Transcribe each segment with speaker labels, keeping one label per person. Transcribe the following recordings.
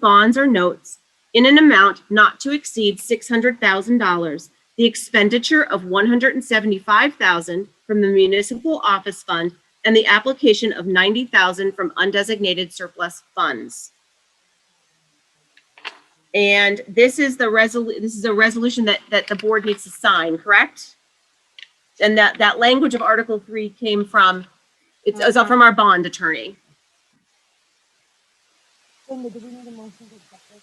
Speaker 1: bonds or notes in an amount not to exceed $600,000, the expenditure of $175,000 from the municipal office fund, and the application of $90,000 from undesignated surplus funds. And this is the resol, this is a resolution that, that the board needs to sign, correct? And that, that language of Article 3 came from, it's it's from our bond attorney.
Speaker 2: Linda, do we need a motion to accept this?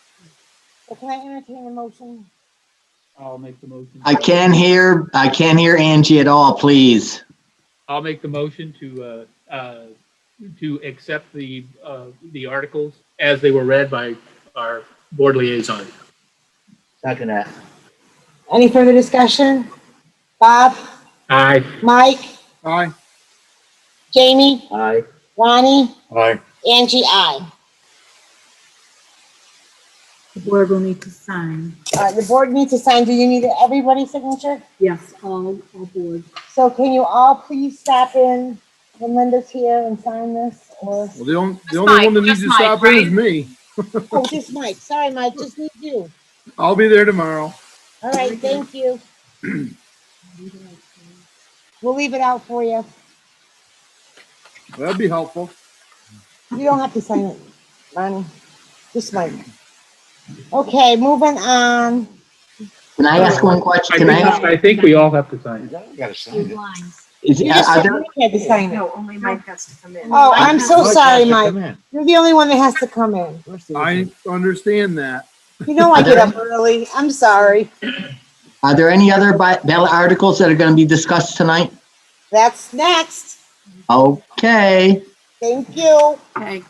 Speaker 2: So can I entertain a motion?
Speaker 3: I'll make the motion.
Speaker 4: I can't hear, I can't hear Angie at all, please.
Speaker 3: I'll make the motion to, uh, uh, to accept the, uh, the articles as they were read by our board liaison.
Speaker 5: Second that.
Speaker 2: Any further discussion? Bob,
Speaker 3: Aye.
Speaker 2: Mike,
Speaker 6: Aye.
Speaker 2: Jamie,
Speaker 5: Aye.
Speaker 2: Ronnie,
Speaker 6: Aye.
Speaker 2: Angie, I.
Speaker 7: The board will need to sign.
Speaker 2: All right, the board needs to sign. Do you need everybody's signature?
Speaker 7: Yes, all, all board.
Speaker 2: So can you all please stop in when Linda's here and sign this? Or,
Speaker 6: Well, the only,
Speaker 1: Just
Speaker 6: the only
Speaker 1: Mike,
Speaker 6: one that
Speaker 1: just
Speaker 6: needs to
Speaker 1: Mike,
Speaker 6: stop in is me.
Speaker 2: oh, just Mike. Sorry, Mike, just need you.
Speaker 6: I'll be there tomorrow.
Speaker 2: All right, thank you. We'll leave it out for you.
Speaker 6: That'd be helpful.
Speaker 2: You don't have to sign it, Ronnie. Just Mike. Okay, moving on.
Speaker 4: Can I ask one question?
Speaker 3: I
Speaker 4: Can I
Speaker 3: think,
Speaker 4: ask,
Speaker 3: I think we all have to sign.
Speaker 5: Gotta
Speaker 7: Two
Speaker 5: sign it.
Speaker 7: lines.
Speaker 4: is,
Speaker 2: You just
Speaker 4: are
Speaker 2: said
Speaker 4: there,
Speaker 2: Mike had to sign it.
Speaker 8: No, only Mike has to come in.
Speaker 2: Oh, I'm so
Speaker 5: Mike
Speaker 2: sorry,
Speaker 5: has to
Speaker 2: Mike.
Speaker 5: come in.
Speaker 2: You're the only one that has to come in.
Speaker 5: Where's the-
Speaker 6: I understand that.
Speaker 2: You know I get up early. I'm sorry.
Speaker 4: are there any other bi- ballot articles that are gonna be discussed tonight?
Speaker 2: That's next.
Speaker 4: Okay,
Speaker 2: Thank you. All
Speaker 7: Okay.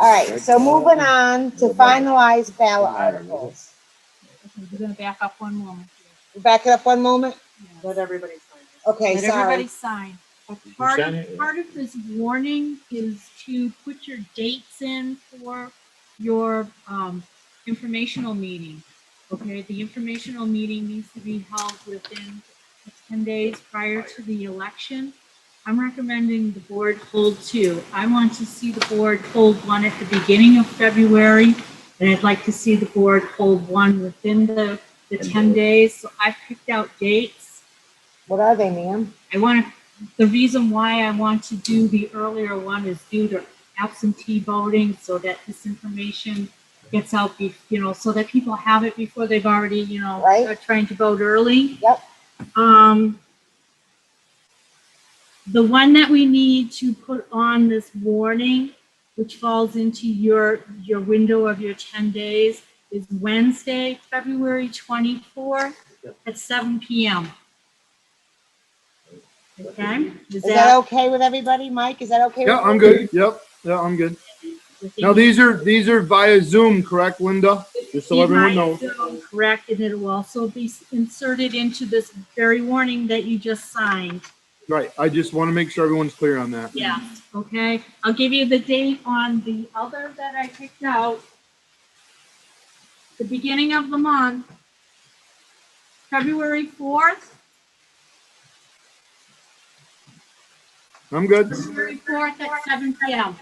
Speaker 2: right, so moving on to finalize ballot articles.
Speaker 7: We're gonna back up one moment.
Speaker 2: Back it up one moment.
Speaker 7: Let
Speaker 8: Let everybody sign it.
Speaker 2: Okay, sorry.
Speaker 7: everybody sign. But
Speaker 5: you
Speaker 7: Part of,
Speaker 5: sign it?
Speaker 7: part of this warning is to put your dates in for your, um, informational meeting. Okay, the informational meeting needs to be held within ten days prior to the election. I'm recommending the board hold two. I want to see the board hold one at the beginning of February, and I'd like to see the board hold one within the, the ten days. So I picked out dates.
Speaker 2: What are they, ma'am?
Speaker 7: I want to, the reason why I want to do the earlier one is due to absentee voting, so that this information gets out, be- you know, so that people have it before they've already, you know,
Speaker 2: Right.
Speaker 7: are trying to vote early.
Speaker 2: Yep.
Speaker 7: Um, the one that we need to put on this warning, which falls into your, your window of your 10 days, is Wednesday, February 24th at 7 PM. Okay? Is
Speaker 2: Is that
Speaker 7: that,
Speaker 2: okay with everybody? Mike, is that okay?
Speaker 6: Yeah,
Speaker 2: with
Speaker 6: I'm
Speaker 2: you?
Speaker 6: good. Yep. Yeah, I'm good. Now, these are, these are via Zoom, correct, Linda? Just so
Speaker 7: You
Speaker 6: everyone
Speaker 7: might
Speaker 6: knows.
Speaker 7: do Correct, and it will also be inserted into this very warning that you just signed.
Speaker 6: Right. I just want to make sure everyone's clear on that.
Speaker 7: Yeah, okay, I'll give you the date on the other that I picked out. The beginning of the month, February fourth,
Speaker 6: I'm good.
Speaker 7: February fourth at seven P M.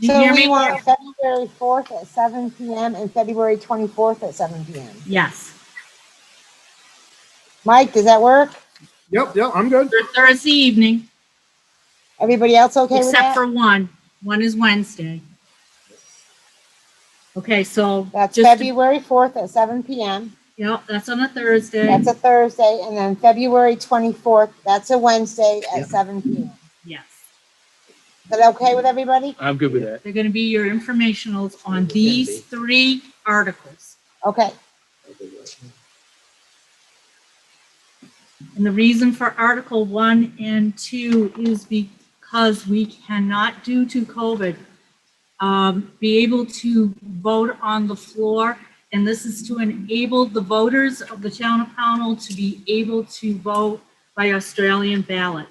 Speaker 7: Do you
Speaker 2: So
Speaker 7: hear
Speaker 2: we
Speaker 7: me?
Speaker 2: want February 4th at seven PM and February 24th at seven PM.
Speaker 7: Yes,
Speaker 2: Mike, does that work?
Speaker 6: Yep, yep, I'm good.
Speaker 7: Thur- Thursday evening,
Speaker 2: Everybody else okay with
Speaker 7: except
Speaker 2: that?
Speaker 7: for one, one is Wednesday. Okay, so.
Speaker 2: That's
Speaker 7: just to-
Speaker 2: February 4th at seven PM.
Speaker 7: Yep, that's on a Thursday,
Speaker 2: That's a Thursday, and then February twenty-fourth, that's a Wednesday at seven P M.
Speaker 7: yes.
Speaker 2: Is that okay with everybody?
Speaker 3: I'm good with that.
Speaker 7: They're gonna be your informationals on these three articles.
Speaker 2: Okay,
Speaker 7: And the reason for Article 1 and 2 is because we cannot, due to COVID, um, be able to vote on the floor. And this is to enable the voters of the town of Pownell to be able to vote by Australian ballot.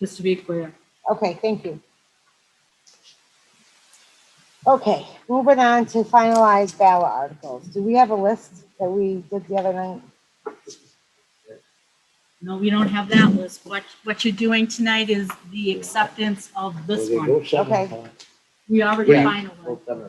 Speaker 7: Just to be clear.
Speaker 2: okay, thank you. Okay, moving on to finalized ballot articles. Do we have a list that we did the other night?
Speaker 7: No, we don't have that list. What, what you're doing tonight is the acceptance of this
Speaker 5: Well, they
Speaker 7: one.
Speaker 5: both seven
Speaker 2: Okay.
Speaker 5: o'clock.
Speaker 7: We already
Speaker 5: Yeah.
Speaker 7: finalized.
Speaker 5: Well,